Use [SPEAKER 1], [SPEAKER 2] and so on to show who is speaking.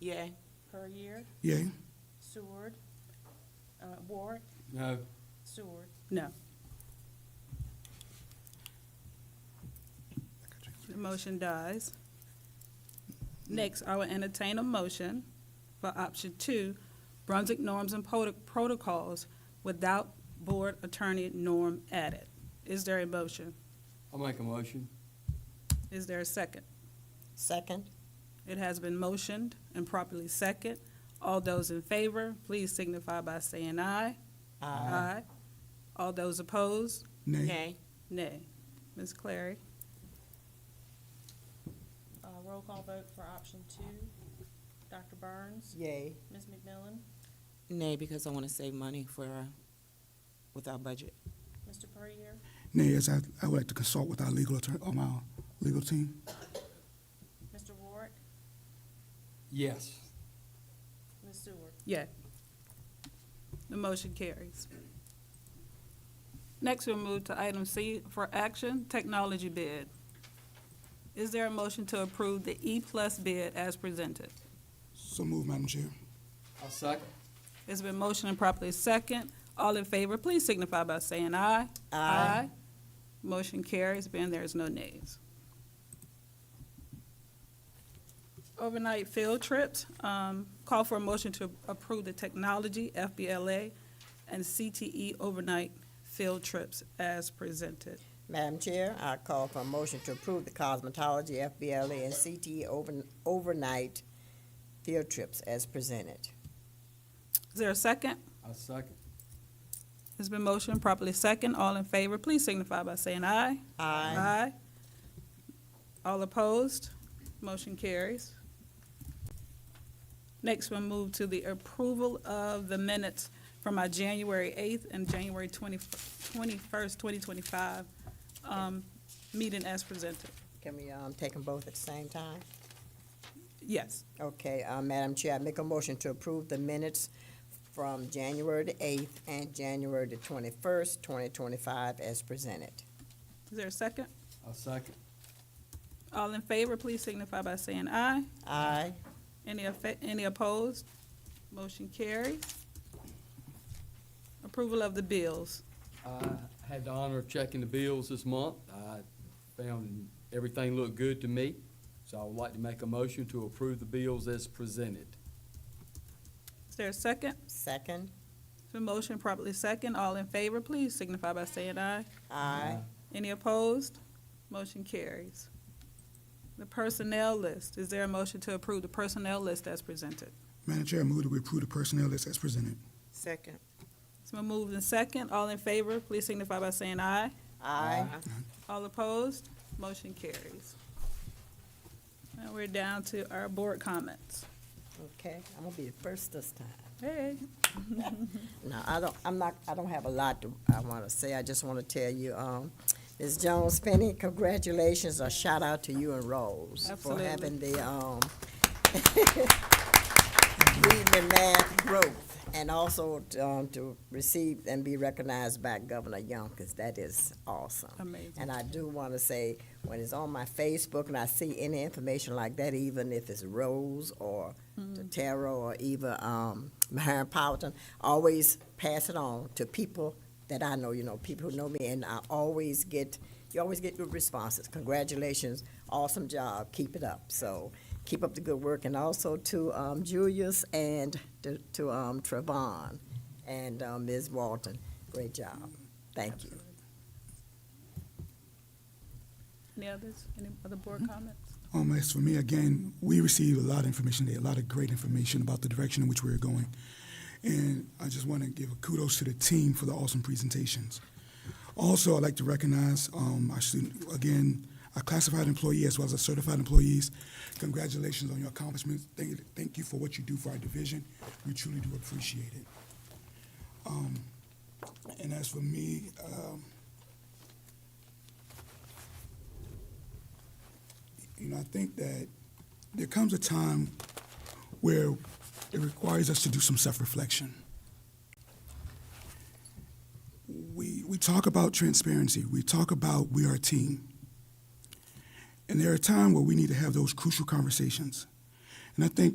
[SPEAKER 1] Yay. Perrier,
[SPEAKER 2] Yay.
[SPEAKER 1] Seward, uh, Ward,
[SPEAKER 3] No.
[SPEAKER 1] Seward. No.
[SPEAKER 4] The motion dies. Next, I will entertain a motion for option two, Brunswick norms and prot- protocols without board attorney norm added. Is there a motion?
[SPEAKER 3] I'll make a motion.
[SPEAKER 4] Is there a second?
[SPEAKER 5] Second?
[SPEAKER 4] It has been motioned and properly second. All those in favor, please signify by saying aye. Aye. All those opposed,
[SPEAKER 2] Nay.
[SPEAKER 1] Nay.
[SPEAKER 4] nay. Ms. Clary?
[SPEAKER 1] Uh, roll call vote for option two. Dr. Burns?
[SPEAKER 5] Yay.
[SPEAKER 1] Ms. McMillan?
[SPEAKER 5] Nay, because I want to save money for, uh, with our budget.
[SPEAKER 1] Mr. Perrier?
[SPEAKER 2] Nay, yes, I, I would like to consult with our legal attorney, or my legal team.
[SPEAKER 1] Mr. Ward?
[SPEAKER 3] Yes.
[SPEAKER 1] Ms. Seward?
[SPEAKER 4] Yay. The motion carries. Next, we'll move to item C for action, technology bid. Is there a motion to approve the E-plus bid as presented?
[SPEAKER 2] So move, Madam Chair.
[SPEAKER 3] I'll second.
[SPEAKER 4] It's been motioned and properly second. All in favor, please signify by saying aye. Aye. Motion carries, being there is no nays. Overnight field trips, um, call for a motion to approve the technology, FBLA, and CTE overnight field trips as presented.
[SPEAKER 6] Madam Chair, I call for a motion to approve the cosmetology, FBLA, and CTE over- overnight field trips as presented.
[SPEAKER 4] Is there a second?
[SPEAKER 3] I'll second.
[SPEAKER 4] It's been motioned properly second. All in favor, please signify by saying aye.
[SPEAKER 5] Aye.
[SPEAKER 4] Aye. All opposed? Motion carries. Next, we'll move to the approval of the minutes from our January 8th and January 20 21st, 2025 um, meeting as presented.
[SPEAKER 6] Can we um, take them both at the same time?
[SPEAKER 4] Yes,
[SPEAKER 6] Okay, uh, Madam Chair, I make a motion to approve the minutes from January the eighth and January the twenty-first, twenty twenty-five as presented.
[SPEAKER 4] is there a second?
[SPEAKER 3] I'll second.
[SPEAKER 4] All in favor, please signify by saying aye.
[SPEAKER 6] Aye.
[SPEAKER 4] Any affa- any opposed? Motion carries. Approval of the bills.
[SPEAKER 3] I had the honor of checking the bills this month. I found everything looked good to me, so I would like to make a motion to approve the bills as presented.
[SPEAKER 4] Is there a second?
[SPEAKER 6] Second?
[SPEAKER 4] The motion properly second. All in favor, please signify by saying aye.
[SPEAKER 6] Aye.
[SPEAKER 4] Any opposed? Motion carries. The personnel list. Is there a motion to approve the personnel list as presented?
[SPEAKER 2] Madam Chair, I move that we approve the personnel list as presented.
[SPEAKER 5] Second.
[SPEAKER 4] It's been moved and second. All in favor, please signify by saying aye.
[SPEAKER 6] Aye.
[SPEAKER 4] All opposed? Motion carries. Now we're down to our board comments.
[SPEAKER 6] Okay, I'm gonna be the first this time.
[SPEAKER 4] Hey.
[SPEAKER 6] No, I don't, I'm not, I don't have a lot to, I want to say, I just want to tell you, um, Ms. Jones Penny, congratulations, a shout out to you and Rose for
[SPEAKER 4] Absolutely.
[SPEAKER 6] having the, um, reading and math growth, and also, um, to receive and be recognized by Governor Young, 'cause that is awesome.
[SPEAKER 4] Amazing.
[SPEAKER 6] And I do want to say, when it's on my Facebook and I see any information like that, even if it's Rose or Totero or even um, Myron Powelton, I always pass it on to people that I know, you know, people who know me, and I always get, you always get good responses. Congratulations, awesome job, keep it up. So keep up the good work, and also to um, Julius and to, to um, Trevon and um, Ms. Walton, great job. Thank you.
[SPEAKER 4] Any others? Any other board comments?
[SPEAKER 2] Um, as for me, again, we received a lot of information there, a lot of great information about the direction in which we're going. And I just want to give a kudos to the team for the awesome presentations. Also, I'd like to recognize um, our student, again, our classified employee as well as our certified employees. Congratulations on your accomplishments. Thank, thank you for what you do for our division. We truly do appreciate it. Um, and as for me, um, you know, I think that there comes a time where it requires us to do some self-reflection. We, we talk about transparency. We talk about we are a team. And there are times where we need to have those crucial conversations. And I think